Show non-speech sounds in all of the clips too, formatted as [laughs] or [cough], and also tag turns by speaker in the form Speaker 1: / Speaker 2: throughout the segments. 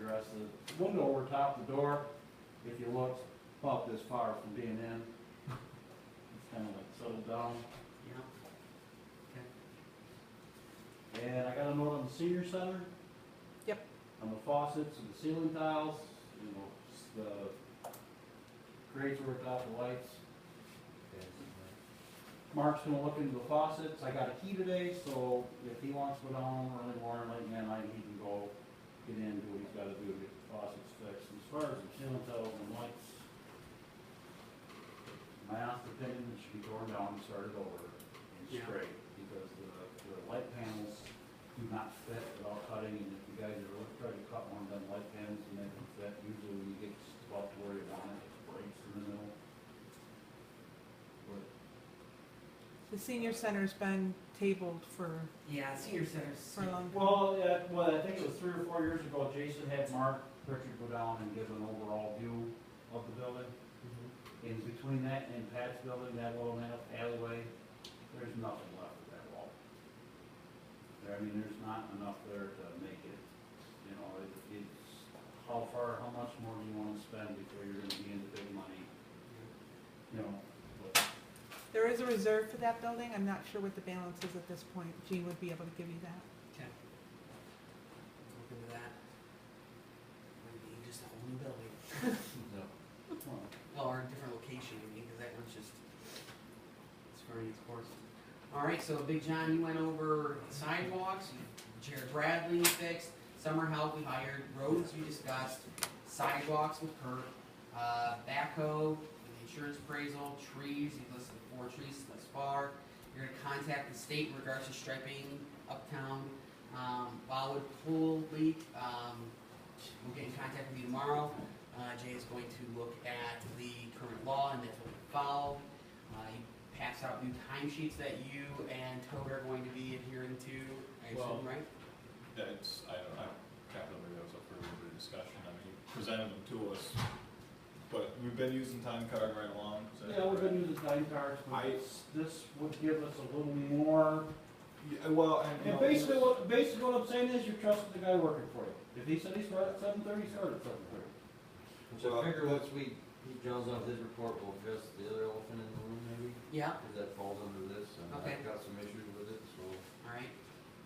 Speaker 1: there's the window over top the door, if you look, about this far from being in. It's kind of like settled down.
Speaker 2: Yeah.
Speaker 1: And I got a note on the senior center.
Speaker 3: Yep.
Speaker 1: On the faucets and the ceiling tiles, you know, s- the grates were without the lights. Mark's gonna look into the faucets, I got a key today, so if he wants to go down early morning, late at night, he can go get in, do what he's gotta do to get the faucets fixed. As far as the ceiling tiles and lights, my honest opinion, it should be torn down and started over and
Speaker 2: Yeah.
Speaker 1: straight, because the, the light panels do not fit without cutting, and if you guys are really trying to cut one of them light panels and make them fit, usually when you get just about to where you want it, it breaks in the middle. But
Speaker 3: The senior center's been tabled for,
Speaker 2: Yeah, senior centers.
Speaker 3: for a long time.
Speaker 1: Well, uh, well, I think it was three or four years ago, Jason had Mark Pritchard go down and give an overall view of the building.
Speaker 2: Mhm.
Speaker 1: In between that and Pat's building, that little na- alleyway, there's nothing left of that wall. There, I mean, there's not enough there to make it, you know, it, it's, how far, how much more do you wanna spend before you're gonna be into big money, you know? But
Speaker 3: There is a reserve for that building. I'm not sure what the balance is at this point. Gene would be able to give you that.
Speaker 2: Okay. Look into that. Might be just a whole new building,
Speaker 1: well,
Speaker 2: Well, or a different location, I mean, because that one's just, it's running its course. All right, so Big John, you went over sidewalks, Jared Bradley fixed, summer help we hired, roads you discussed, sidewalks with Kurt, uh, backhoe, an insurance appraisal, trees, you've listed four trees thus far. You're gonna contact the state in regards to striping uptown, um, Wildwood Pool leak, um, we'll get in contact with you tomorrow. Uh, Jay is going to look at the current law and that's what we follow. Uh, he passed out new timesheets that you and Toad are going to be adhering to, I
Speaker 4: Well-
Speaker 2: assume, right?
Speaker 4: That's, I don't, I can't remember that was up for a little bit of discussion, I mean, you presented them to us, but we've been using time card right along, is that
Speaker 1: Yeah, we've
Speaker 4: correct?
Speaker 1: been using time cards, but
Speaker 4: I-
Speaker 1: this would give us a little more
Speaker 4: Yeah, well, and.
Speaker 1: And basically what, basically what I'm saying is you're trusting the guy working for you. If he said he started at seven thirty, he started at seven thirty.
Speaker 5: So I figure once we, he draws off his report, we'll address the other elephant in the room maybe,
Speaker 2: Yeah,
Speaker 5: because that falls under this, and
Speaker 2: Okay.
Speaker 5: I've got some issues with it, so.
Speaker 2: all right.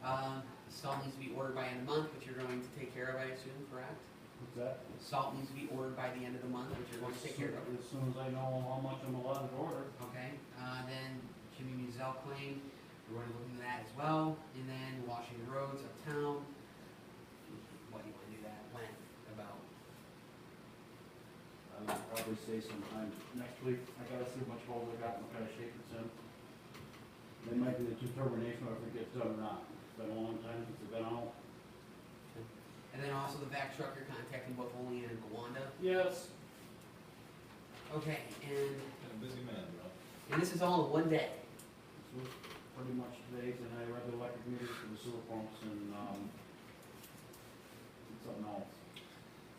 Speaker 2: Um, salt needs to be ordered by end of month, which you're going to take care of, I assume, correct?
Speaker 1: What's that?
Speaker 2: Salt needs to be ordered by the end of the month, which you're going to take care of.
Speaker 1: As soon as I know how much I'm allowed to order.
Speaker 2: Okay, uh, then Jimmy Muzel claim, we're gonna look into that as well, and then washing the roads uptown. What do you wanna do that, when, about,
Speaker 1: I would probably say sometime next week. I gotta see how much hold I got and what kind of shape it's in. That might be the determination of if it gets done or not. It's been a long time since I've been out.
Speaker 2: and then also the back truck, you're contacting both Olean and Gowanda.
Speaker 1: Yes.
Speaker 2: Okay, and,
Speaker 4: Been a busy man, bro.
Speaker 2: and this is all in one day,
Speaker 1: This was pretty much today's, and I read the electric meters for the sewer pumps and, um, something else.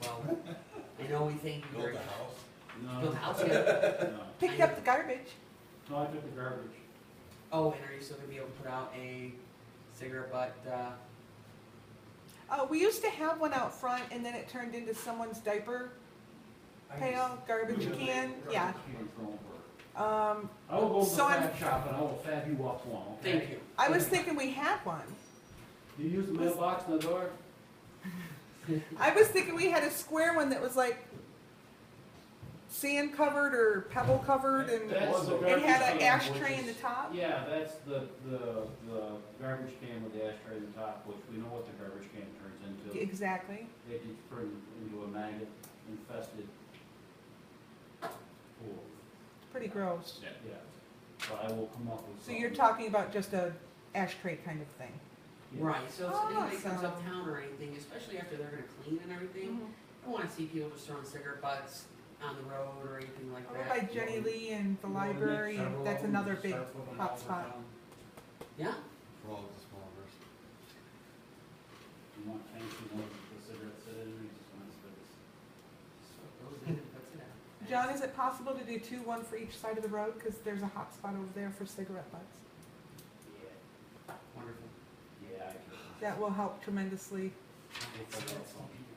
Speaker 2: well, I know we thank you very
Speaker 4: Built
Speaker 2: much.
Speaker 4: a house.
Speaker 2: Build a
Speaker 1: No, [laughs]
Speaker 2: house, yeah.
Speaker 1: no.
Speaker 3: Picked up the garbage.
Speaker 1: No, I took the garbage.
Speaker 2: oh, and are you still gonna be able to put out a cigarette butt, uh,
Speaker 3: Uh, we used to have one out front and then it turned into someone's diaper pail, garbage can, yeah. Um,
Speaker 1: I will go to the
Speaker 3: So I'm-
Speaker 1: fab shop and I will fab you up one, okay?
Speaker 2: thank you.
Speaker 3: I was thinking we had one.
Speaker 1: Do you use the mailbox in the door?
Speaker 3: I was thinking we had a square one that was like sand covered or pebble covered and
Speaker 1: That's the
Speaker 3: it
Speaker 1: garbage
Speaker 3: had an
Speaker 1: can,
Speaker 3: ashtray
Speaker 1: which
Speaker 3: in the
Speaker 1: is-
Speaker 3: top.
Speaker 1: Yeah, that's the, the, the garbage can with the ashtray in the top, which we know what the garbage can turns into.
Speaker 3: Exactly.
Speaker 1: It gets turned into a maggot infested pool,
Speaker 3: Pretty gross.
Speaker 4: Yeah.
Speaker 1: yeah. But I will come up with
Speaker 3: So
Speaker 1: something.
Speaker 3: you're talking about just a ashtray kind of thing.
Speaker 1: Yeah.
Speaker 2: Right, so if anybody comes
Speaker 3: Awesome.
Speaker 2: uptown or anything, especially after they're gonna clean and everything,
Speaker 3: Mm-hmm.
Speaker 2: I don't wanna see people just throwing cigarette butts on the road or anything like
Speaker 3: Over by
Speaker 2: that.
Speaker 3: Jenny Lee and the
Speaker 1: You wanna make
Speaker 3: library,
Speaker 1: several of
Speaker 3: that's
Speaker 1: them,
Speaker 3: another
Speaker 1: just
Speaker 3: big
Speaker 1: start putting them all
Speaker 3: hot
Speaker 1: over
Speaker 3: spot.
Speaker 1: town.
Speaker 2: Yeah,
Speaker 5: For all of the small verses.
Speaker 1: You want tanks, you want the cigarettes in, you just want cigarettes.
Speaker 2: so it goes in and puts it out.
Speaker 3: John, is it possible to do two, one for each side of the road? Because there's a hot spot over there for cigarette butts.
Speaker 2: Wonderful.
Speaker 1: Yeah, yeah, I can.
Speaker 3: That will help tremendously.
Speaker 2: It's- it's-